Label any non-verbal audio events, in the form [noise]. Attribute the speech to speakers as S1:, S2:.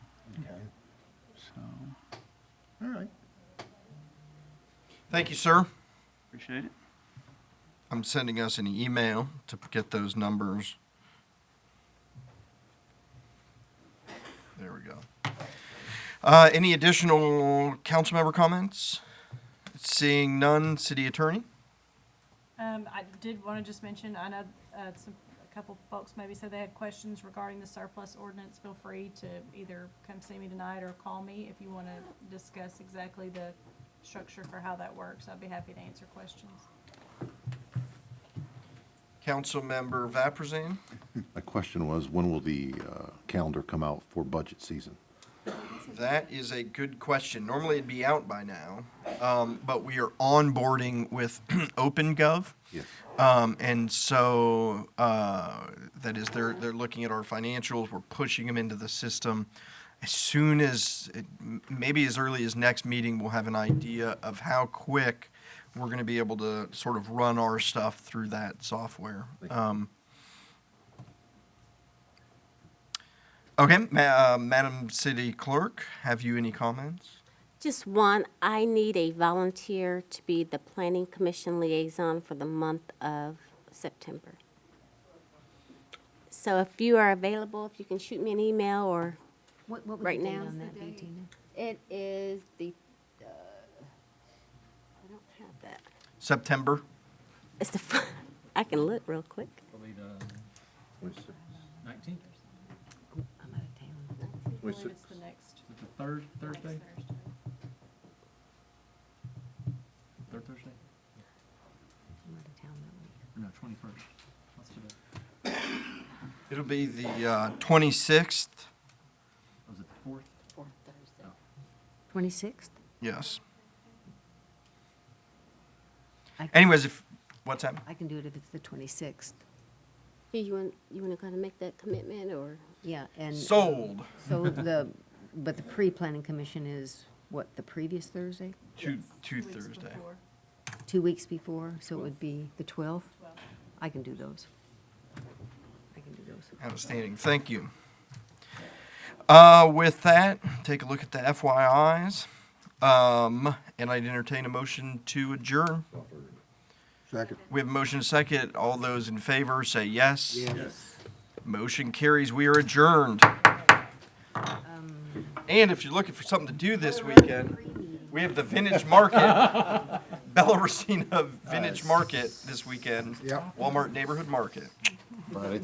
S1: So, all right,
S2: Thank you, sir.
S1: appreciate it.
S2: I'm sending us an email to get those numbers. There we go. Uh, any additional council member comments? Seeing none, city attorney?
S3: Um, I did want to just mention, I know, uh, some, a couple folks maybe said they had questions regarding the surplus ordinance. Feel free to either come see me tonight or call me if you want to discuss exactly the structure for how that works. I'd be happy to answer questions.
S2: Council member Vapurzian?
S4: My question was, when will the uh, calendar come out for budget season?
S2: That is a good question. Normally it'd be out by now, um, but we are onboarding with [clears throat] OpenGov.
S4: Yes.
S2: Um, and so uh, that is they're they're looking at our financials. We're pushing them into the system. As soon as m- maybe as early as next meeting, we'll have an idea of how quick we're going to be able to sort of run our stuff through that software. Um, okay, ma- uh, Madam City Clerk, have you any comments?
S5: Just one, I need a volunteer to be the Planning Commission liaison for the month of September. So if you are available, if you can shoot me an email or,
S6: What, what would
S5: Right
S6: the date
S5: now.
S6: on that
S5: What's the
S6: be,
S5: date?
S6: Tina?
S5: it is the, uh, I don't have that.
S2: September.
S5: It's the, [laughs] fir- I can look real quick.
S7: Probably the nineteenth,
S6: I'm out of town.
S3: I believe it's the next,
S7: the third
S3: next
S7: Thursday,
S3: Thursday.
S7: third Thursday,
S6: I'm out of town that week.
S7: or no, twenty-first, what's today?
S2: It'll be the uh, 26th.
S7: Was it the fourth?
S5: Fourth Thursday.
S6: Twenty-sixth?
S2: Yes.
S6: I-
S2: Anyways, if what's that?
S6: I can do it if it's the twenty-sixth.
S5: Do you want, you want to kind of make that commitment or?
S6: Yeah, and. um,
S2: Sold.
S6: So the, but the pre-planning commission is, what, the previous Thursday?
S2: To, to
S3: Two weeks
S2: Thursday.
S3: before.
S6: Two weeks before, so it would be the twelfth? I can do those. I can do those.
S2: Outstanding. Thank you. Uh, with that, take a look at the FYIs. Um, and I'd entertain a motion to adjourn.
S4: Second.
S2: We have a motion and a second. All those in favor say yes. Motion carries. We are adjourned. And if you're looking for something to do this weekend, we have the Vintage
S4: [laughs]
S2: Market, Bella Racina Vintage Market this weekend.
S4: Yep.
S2: Walmart Neighborhood Market.
S4: Friday,